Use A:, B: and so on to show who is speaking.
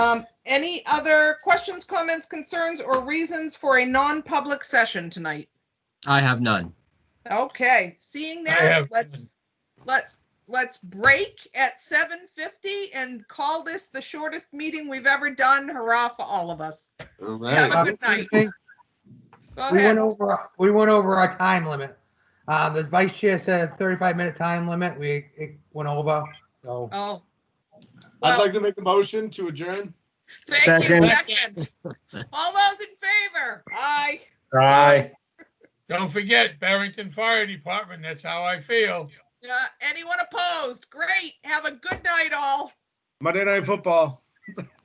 A: Um, Any other questions, comments, concerns, or reasons for a non-public session tonight?
B: I have none.
A: Okay, seeing that,
C: have
A: let's, let, let's break at seven fifty and call this the shortest meeting we've ever done. Hurrah for all of us.
D: All
A: Have a
D: right.
A: good night.
C: We
A: Go
C: went
A: ahead.
C: over, we went over our time limit. Uh, the vice chair said thirty-five minute time limit. We, it went over, so.
A: Oh.
D: I'd
A: Well,
D: like to make a motion to adjourn.
A: thank you,
E: Second.
A: second. All those in favor? Aye.
E: Aye.
F: Don't forget Barrington Fire Department, that's how I feel.
A: Uh, anyone opposed? Great. Have a good night, all.
D: Monday Night Football.